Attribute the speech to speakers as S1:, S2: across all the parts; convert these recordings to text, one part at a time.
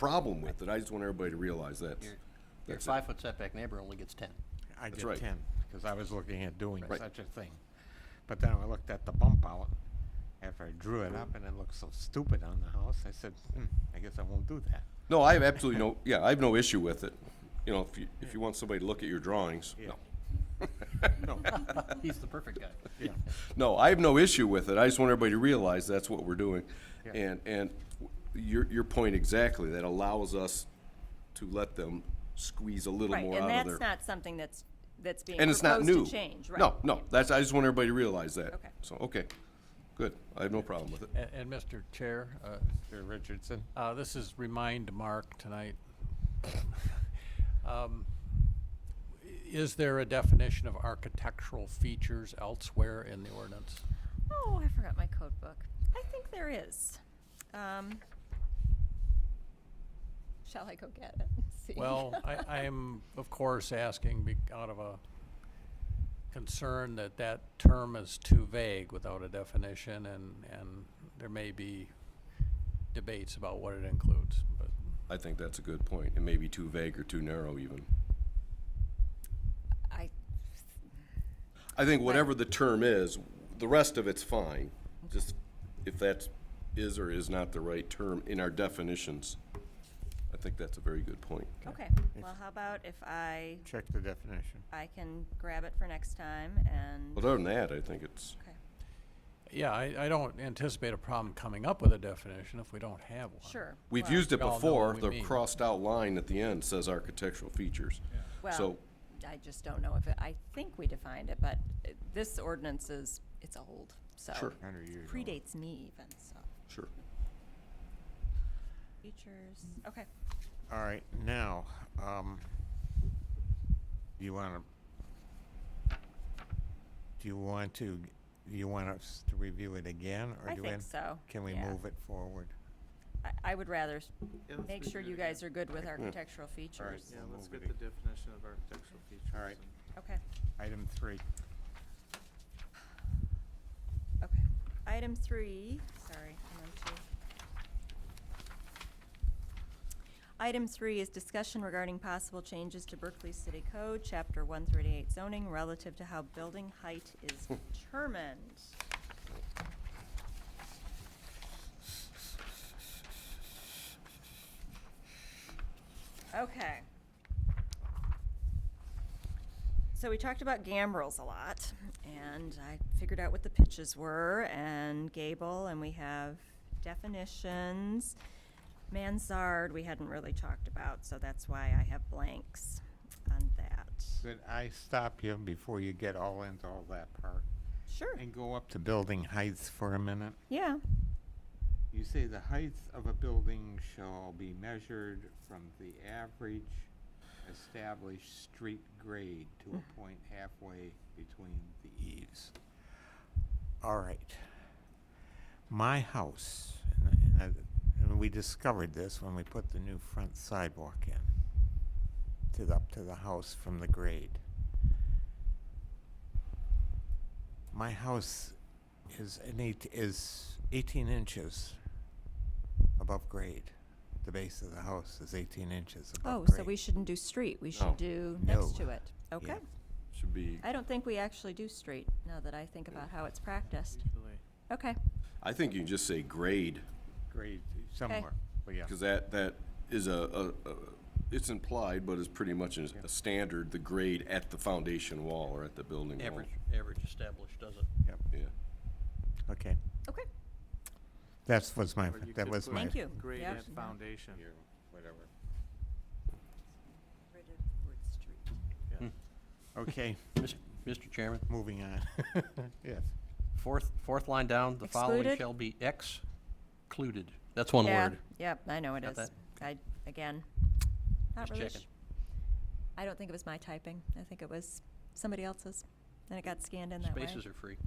S1: problem with it. I just want everybody to realize that.
S2: Your
S1: That's it.
S2: five-foot setback neighbor only gets 10.
S3: I did
S1: right.
S3: ten, because I was looking at doing
S1: Right.
S3: such a thing. But then I looked at the bump out after I drew it up and it looked so stupid on the house. I said, hmm, I guess I won't do that.
S1: No, I have absolutely no, yeah, I have no issue with it. You know, if you, if you want somebody to look at your drawings, no.
S2: He's the perfect guy.
S3: Yeah.
S1: No, I have no issue with it. I just want everybody to realize that's what we're doing.
S3: Yeah.
S1: And, and your, your point exactly, that allows us to let them squeeze a little
S4: Right,
S1: more out of
S4: and
S1: their.
S4: that's not something that's, that's being
S1: And it's not
S4: proposed
S1: new.
S4: to change, right?
S1: No, no, that's, I just want everybody to realize that.
S4: Okay.
S1: So, okay, good. I have no problem with it.
S5: And, and Mr. Chair, uh,
S3: Mr. Richardson,
S5: uh, this is remind Mark tonight. Um, Is there a definition of architectural features elsewhere in the ordinance?
S4: Oh, I forgot my code book. I think there is. Um, Shall I go get it? See.
S5: Well, I, I am, of course, asking be- out of a concern that that term is too vague without a definition, and, and there may be debates about what it includes, but
S1: I think that's a good point. It may be too vague or too narrow even.
S4: I,
S1: I think whatever the term is, the rest of it's fine. Just if that is or is not the right term in our definitions. I think that's a very good point.
S4: okay, well, how about if I,
S3: check the definition.
S4: I can grab it for next time and,
S1: But other than that, I think it's,
S4: okay,
S5: Yeah, I, I don't anticipate a problem coming up with a definition if we don't have one.
S4: sure.
S1: we've
S4: well,
S1: used it
S5: We all know
S1: before.
S5: what we
S1: The
S5: mean.
S1: crossed out line at the end says architectural features.
S4: Well,
S1: So,
S4: I just don't know if, it I think we defined it, but uh, this ordinance is, it's old, so.
S1: Sure.
S3: Hundred years old.
S4: Predates me even, so.
S1: sure.
S4: Features, okay.
S3: All right, now, um, you wanna, do you want to, do you want us to review it again? or
S4: I
S3: do
S4: think
S3: an-
S4: so,
S3: Can we
S4: yeah.
S3: move it forward?
S4: I, I would rather s- make sure you guys are good with architectural features.
S6: Yeah,
S3: We'll
S6: let's
S3: move
S6: get the
S3: it.
S6: definition of architectural features.
S3: All right.
S6: and-
S4: Okay,
S3: Item three.
S4: okay. Item three, sorry, I'm on two. Item three is discussion regarding possible changes to Berkeley City Code, Chapter one thirty-eight zoning relative to how building height is determined. Okay. So we talked about gambrels a lot, and I figured out what the pitches were and gable, and we have definitions. Mansard, we hadn't really talked about, so that's why I have blanks on that.
S3: Could I stop you before you get all into all that part?
S4: Sure,
S3: And go up to building heights for a minute.
S4: yeah,
S3: You say the heights of a building shall be measured from the average established street grade to a point halfway between the eaves. All right. My house, and I- and I- and we discovered this when we put the new front sidewalk in, to the, up to the house from the grade. My house is an eight, is eighteen inches above grade. The base of the house is eighteen inches
S4: oh,
S3: above grade.
S4: so we shouldn't do street, we
S1: No.
S4: should do next
S3: Oh, No.
S4: to it, okay?
S1: Should be,
S4: I don't think we actually do street, now that I think about how it's practiced,
S6: Usually.
S4: okay,
S1: I think you can just say grade.
S3: Grade somewhere, but yeah.
S1: Because that, that is a, a, a- it's implied, but it's pretty much a, a standard, the grade at the foundation wall or at the building wall.
S2: Average, average established does it.
S3: Yep,
S1: Yeah,
S3: okay.
S4: okay,
S3: That's was my,
S6: Or you
S3: that
S6: could
S3: was
S6: put
S3: my.
S4: Thank you.
S6: Grade
S4: Yeah.
S6: at foundation.
S3: Whatever.
S4: rid of word street.
S3: Okay,
S2: Mis- Mr. Chairman,
S3: moving on. Yes.
S2: fourth, fourth line down, the following
S4: Excluded?
S2: shall be excluded. That's one
S4: yeah,
S2: word.
S4: Yep, I know it
S2: Got
S4: is.
S2: that?
S4: I, again, not
S2: Just
S4: really.
S2: checking.
S4: sh- I don't think it was my typing. I think it was somebody else's, and it got scanned in that way.
S2: Spaces are free.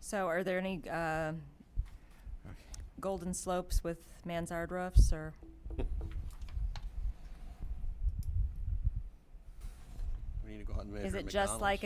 S4: So, are there any uh, golden slopes with mansard roofs, or
S2: We need to go out and measure
S4: is it just
S2: McDonald's.
S4: like